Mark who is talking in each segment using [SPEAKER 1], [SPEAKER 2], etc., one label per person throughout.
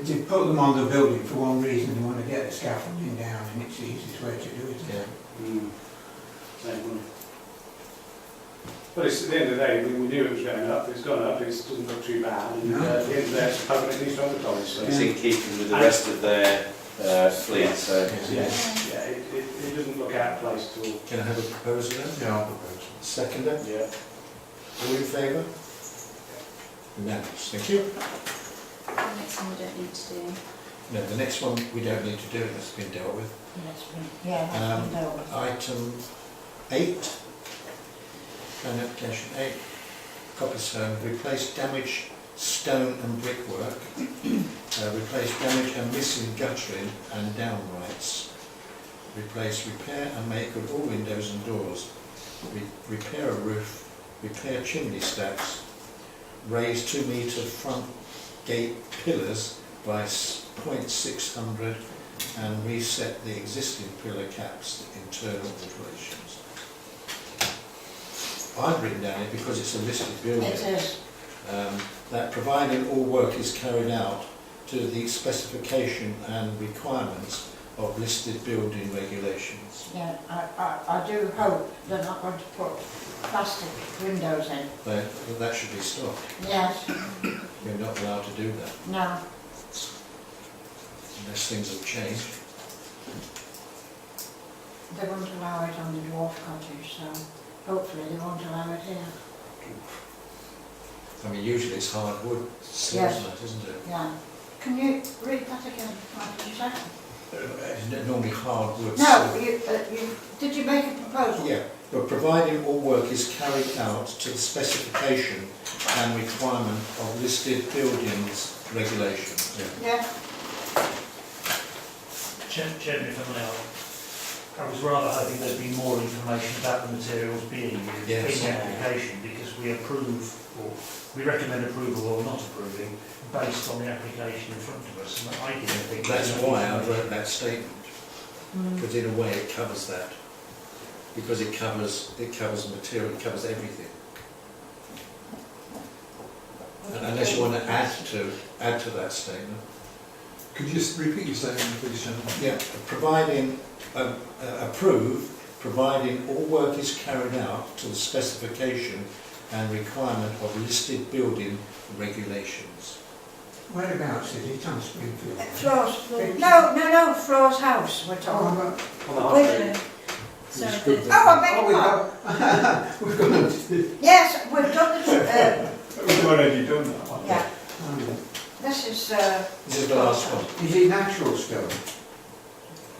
[SPEAKER 1] they put them on the building for one reason, they want to get the scaffolding down, and it's the easiest way to do it.
[SPEAKER 2] Yeah.
[SPEAKER 3] Mm. Same one.
[SPEAKER 4] But it's, at the end of the day, we, we knew it was going up, it's gone up, it doesn't look too bad, and uh, at the end of the day, it's public, it's on the college, so.
[SPEAKER 2] It's in keeping with the rest of their uh, fleet, so.
[SPEAKER 4] Yeah, yeah, it, it, it doesn't look out of place at all.
[SPEAKER 5] Can I have a proposal then?
[SPEAKER 6] Yeah, I'll propose.
[SPEAKER 5] Second then?
[SPEAKER 3] Yeah.
[SPEAKER 5] All in favour? Unanimous, thank you.
[SPEAKER 7] The next one we don't need to do.
[SPEAKER 5] No, the next one we don't need to do, that's been dealt with.
[SPEAKER 8] Yeah,
[SPEAKER 5] Um,
[SPEAKER 8] that's been dealt with.
[SPEAKER 5] Item eight, plan application eight, Copperstone, replace damaged stone and brickwork, uh, replace damaged and missing guttering and downrights, replace, repair and make of all windows and doors, re- repair a roof, repair chimney stacks, raise two metre front gate pillars by s- 0.600 and reset the existing pillar caps to internal alterations. I've written down it because it's a listed building.
[SPEAKER 8] It is,
[SPEAKER 5] Um, that providing all work is carried out to the specification and requirements of listed building regulations.
[SPEAKER 8] yeah, I, I, I do hope they're not going to put plastic windows in.
[SPEAKER 5] That, that should be stopped.
[SPEAKER 8] Yes,
[SPEAKER 5] You're not allowed to do that
[SPEAKER 8] no,
[SPEAKER 5] unless things have changed.
[SPEAKER 8] they won't allow it on the dwarf cottage, so hopefully they won't allow it here.
[SPEAKER 5] I mean, usually it's hardwood, still,
[SPEAKER 8] Yes.
[SPEAKER 5] isn't it, isn't it?
[SPEAKER 8] Yeah. Can you read that again? What did you say?
[SPEAKER 5] It's Uh, Normally hardwood.
[SPEAKER 8] No, you, uh, you, did you make a proposal?
[SPEAKER 5] Yeah, but providing all work is carried out to the specification and requirement of listed buildings regulations.
[SPEAKER 8] Yeah,
[SPEAKER 9] Chair- Chairman, if I may, I- I was rather hoping there'd be more information about the materials being used
[SPEAKER 5] Yes.
[SPEAKER 9] in the application, because we approve, or we recommend approval or not approving, based on the application in front of us, and I didn't think.
[SPEAKER 5] That's why uh, I wrote that statement,
[SPEAKER 8] mm,
[SPEAKER 5] because in a way it covers that. Because it covers, it covers material, it covers everything. And Unless you want to add to, add to that statement.
[SPEAKER 6] Could you just repeat your statement, please, gentlemen?
[SPEAKER 5] Yeah, providing, uh, uh, approve, providing all work is carried out to the specification and requirement of listed building regulations.
[SPEAKER 1] Whereabouts is it on Springfield?
[SPEAKER 8] Uh, Floor's, no, no, no, Floor's house we're talking about.
[SPEAKER 3] On
[SPEAKER 1] Oh,
[SPEAKER 3] the half
[SPEAKER 7] Wait,
[SPEAKER 3] day.
[SPEAKER 7] So,
[SPEAKER 6] It's good
[SPEAKER 7] the-
[SPEAKER 8] Oh, I beg
[SPEAKER 1] Oh,
[SPEAKER 8] your
[SPEAKER 1] we've
[SPEAKER 8] pardon.
[SPEAKER 1] got, we've got, it.
[SPEAKER 8] Yes, we've done the, uh,
[SPEAKER 4] We've already done that one.
[SPEAKER 8] yeah,
[SPEAKER 1] Um,
[SPEAKER 8] this is, uh,
[SPEAKER 5] This is the last one.
[SPEAKER 1] is it natural stone?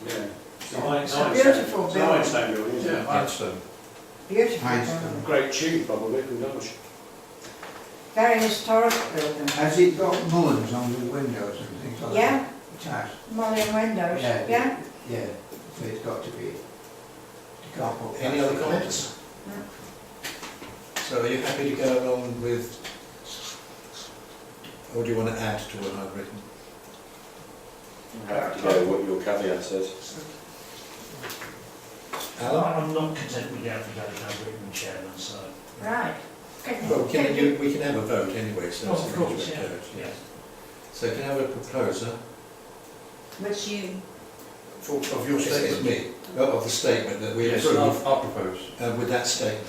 [SPEAKER 3] Yeah.
[SPEAKER 4] It's a high-
[SPEAKER 8] It's a
[SPEAKER 4] high-
[SPEAKER 8] beautiful
[SPEAKER 4] it's a high stone building, isn't it?
[SPEAKER 5] Ironstone.
[SPEAKER 8] beautiful.
[SPEAKER 1] Ironstone.
[SPEAKER 8] building.
[SPEAKER 3] Great tune, probably, from Dulwich.
[SPEAKER 8] Very historic building.
[SPEAKER 1] Has it got mullins on the windows and things like
[SPEAKER 8] Yeah,
[SPEAKER 1] that? It has.
[SPEAKER 8] modern windows,
[SPEAKER 1] Yeah.
[SPEAKER 8] yeah?
[SPEAKER 1] Yeah, so it's got to be. You can't put.
[SPEAKER 5] Any other comments?
[SPEAKER 8] No.
[SPEAKER 5] So are you happy to go along with, or do you want to add to what I've written?
[SPEAKER 2] You Have to know what your caveat says.
[SPEAKER 5] Alan?
[SPEAKER 9] I'm not content with the application I've written, Chairman, so.
[SPEAKER 8] Right. Can
[SPEAKER 5] Well,
[SPEAKER 8] you-
[SPEAKER 5] can you, we can have a vote anyway, so.
[SPEAKER 9] Oh,
[SPEAKER 5] it's
[SPEAKER 9] Of
[SPEAKER 5] not
[SPEAKER 9] course,
[SPEAKER 5] a
[SPEAKER 9] yeah,
[SPEAKER 5] vote,
[SPEAKER 9] yeah.
[SPEAKER 5] So can I have a proposer
[SPEAKER 7] Which you,
[SPEAKER 5] for, of your statement? Me, Oh, of the statement that we
[SPEAKER 6] Yes,
[SPEAKER 5] approve.
[SPEAKER 6] I'll I'll propose.
[SPEAKER 5] uh, with that statement.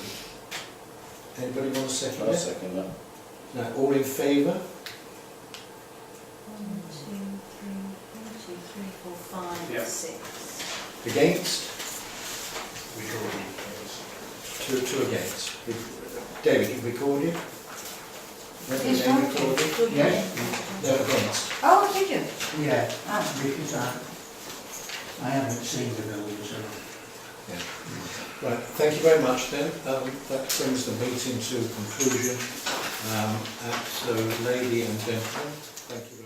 [SPEAKER 5] Anybody want to second
[SPEAKER 2] I'll
[SPEAKER 5] that?
[SPEAKER 2] second that.
[SPEAKER 5] No, all in favour?
[SPEAKER 7] one, two, three, one, two, three, four,
[SPEAKER 4] Yeah.
[SPEAKER 7] five, six.
[SPEAKER 5] Against?
[SPEAKER 9] We draw the-
[SPEAKER 5] Two, two against. David, you recorded?
[SPEAKER 8] Yes,
[SPEAKER 5] Name
[SPEAKER 8] ma'am.
[SPEAKER 5] recorded? No, against.
[SPEAKER 8] Oh, did you?
[SPEAKER 1] Yeah,
[SPEAKER 8] Ah,
[SPEAKER 1] because I, I haven't seen the building, so.
[SPEAKER 5] Right, thank you very much then. Um, that brings the meeting to conclusion. Um, and so, lady and gentlemen, thank you very much.